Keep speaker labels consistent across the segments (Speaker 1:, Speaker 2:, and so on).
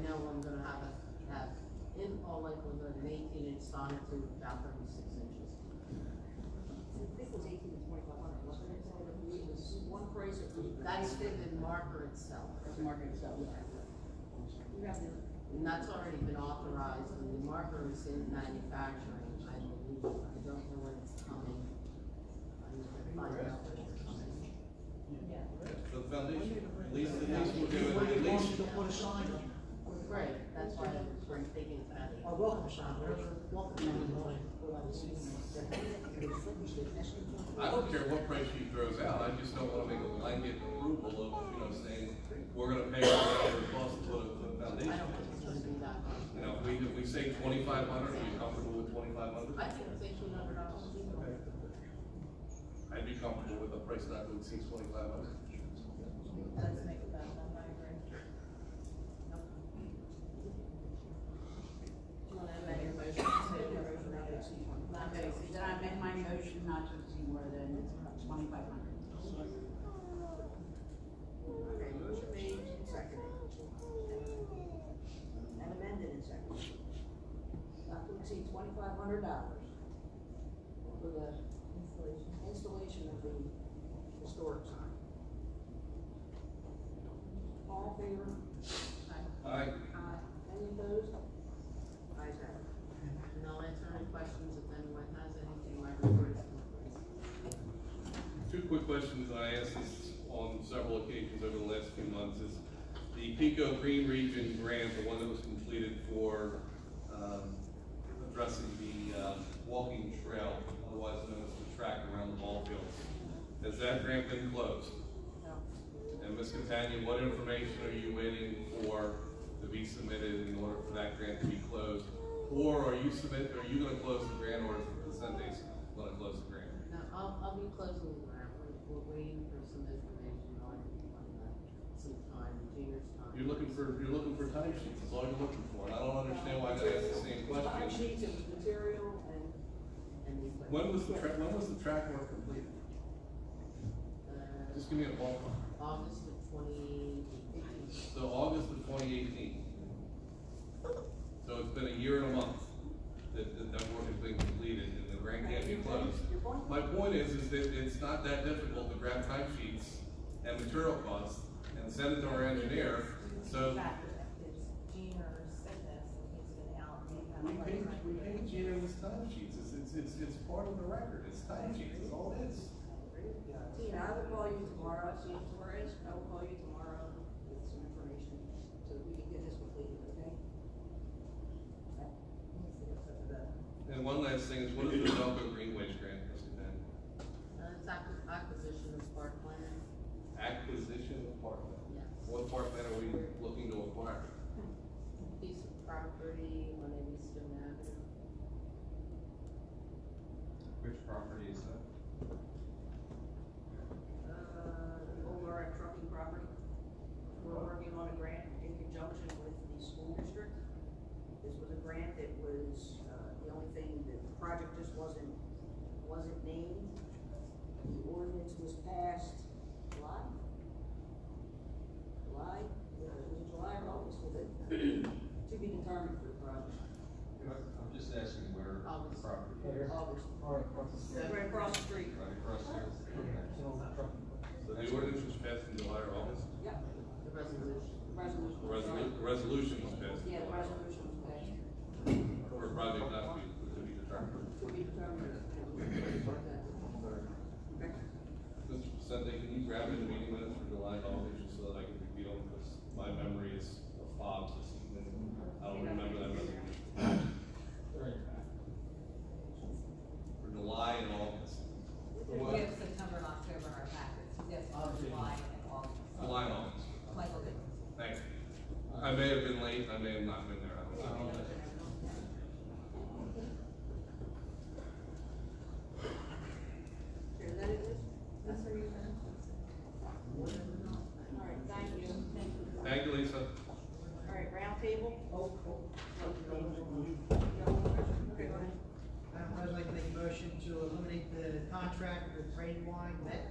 Speaker 1: know I'm gonna have a, have in all likelihood an eighteen inch sonnet to about thirty-six inches.
Speaker 2: I think it was eighteen to twenty-five hundred, wasn't it? It was one price or three.
Speaker 1: That's for the marker itself,
Speaker 2: That's the market itself. You have the,
Speaker 1: and that's already been authorized, and the marker is in manufacturing, I believe, I don't know when it's coming. I'm gonna find out when it's coming.
Speaker 2: yeah.
Speaker 3: So the foundation, at least, at least we'll do it, at least.
Speaker 1: Right, that's why I'm thinking about it.
Speaker 4: Or welcome shop, whatever.
Speaker 3: I don't care what price she throws out, I just don't wanna make a blanket approval of, you know, saying, we're gonna pay whatever it costs to put a
Speaker 1: I don't
Speaker 3: foundation.
Speaker 1: think it's gonna be that much.
Speaker 3: You know, if we, if we say twenty-five hundred, are you comfortable with twenty-five
Speaker 1: I
Speaker 3: hundred?
Speaker 1: think it's eighteen hundred dollars.
Speaker 3: I'd be comfortable with a price not to exceed twenty-five hundred.
Speaker 1: Let's make it that, I agree.
Speaker 5: Not to exceed, then I make my motion not to exceed more than twenty-five hundred.
Speaker 2: Okay, motion made and seconded. And amended and seconded. Not to exceed twenty-five hundred dollars for the installation of the historic sign. All in favor?
Speaker 3: Alright,
Speaker 2: Aye. Any opposed? Ayes have it.
Speaker 1: And I'll answer any questions if anyone has anything, my report is complete.
Speaker 3: two quick questions that I asked this on several occasions over the last few months is the Pico Green Region grant, the one that was completed for, um, addressing the, uh, walking trail, otherwise known as the track around the ball fields. Has that grant been closed? And Ms. Catania, what information are you waiting for to be submitted in order for that grant to be closed? Or are you submit, are you gonna close the grant or is the Sundays gonna close the grant?
Speaker 1: No, I'll, I'll be closing the grant, we're, we're waiting for some information on, on that, some time, junior's time.
Speaker 3: You're looking for, you're looking for time sheets, is all you're looking for, and I don't understand why I gotta ask the same
Speaker 2: Time
Speaker 3: question.
Speaker 2: sheets and material and
Speaker 1: And we put,
Speaker 3: When was the track, when was the track work completed?
Speaker 1: uh,
Speaker 3: Just give me a ballpark.
Speaker 1: August of twenty eighteen.
Speaker 3: So August of twenty eighteen. So it's been a year and a month that, that that work has been completed and the grant can't be closed.
Speaker 2: Your point?
Speaker 3: My point is, is that it's not that difficult to grab time sheets and material costs and send it to our engineer, so. We paid, we paid Gina his time sheets, it's, it's, it's, it's part of the record, it's time sheets, it's all it is.
Speaker 2: Tina, I will call you tomorrow, see if Torres, I will call you tomorrow with some information, so that we can get this completed, okay?
Speaker 3: And one last thing is, what is the Velco Greenways grant, Mr. Ben?
Speaker 1: Uh, it's acqui- acquisition of parkland,
Speaker 3: Acquisition of parkland.
Speaker 1: yes.
Speaker 3: What parkland are we looking to acquire?
Speaker 1: Piece of property on Evanston Avenue.
Speaker 6: Which property is that?
Speaker 2: Uh, the old Laura Trucking property, we're working on a grant in conjunction with the school district. This was a grant that was, uh, the only thing, that the project just wasn't, wasn't named. The ordinance was passed July? July, Yeah, it was July or August, was it? To be determined for the project.
Speaker 6: I'm just asking where the
Speaker 1: Obviously.
Speaker 6: property is,
Speaker 2: August.
Speaker 4: Alright, across the street.
Speaker 2: Right across the street.
Speaker 6: right across here. Okay.
Speaker 4: It's an old trucking place.
Speaker 3: So the ordinance was passed in July or August?
Speaker 2: Yep,
Speaker 1: The resolution.
Speaker 2: resolution.
Speaker 3: The resolu- the resolution was passed in
Speaker 2: Yeah, the
Speaker 3: July.
Speaker 2: resolution was passed.
Speaker 3: Or project not to be, to be determined.
Speaker 2: To be determined. Okay.
Speaker 3: Mr. Sente, can you grab me the meeting minutes for July, and August, just so that I can review them, because my memory is a fob this evening. I don't remember that resolution. For July and August.
Speaker 5: We have September and October in our packets, yes, July and August.
Speaker 3: July and August.
Speaker 5: Michael did.
Speaker 3: Thank you. I may have been late, I may have not been there, I don't know.
Speaker 2: Here, that it is? That's where you All right, thank you. Thank you.
Speaker 3: Thank you, Lisa.
Speaker 2: All right, round table? Oh, cool. Okay, go ahead.
Speaker 7: Madam President, I'd like to make a motion to eliminate the contract with Brandywine Met.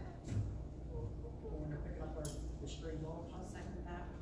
Speaker 7: We're gonna pick up our, the string mulch.
Speaker 5: I'll second that.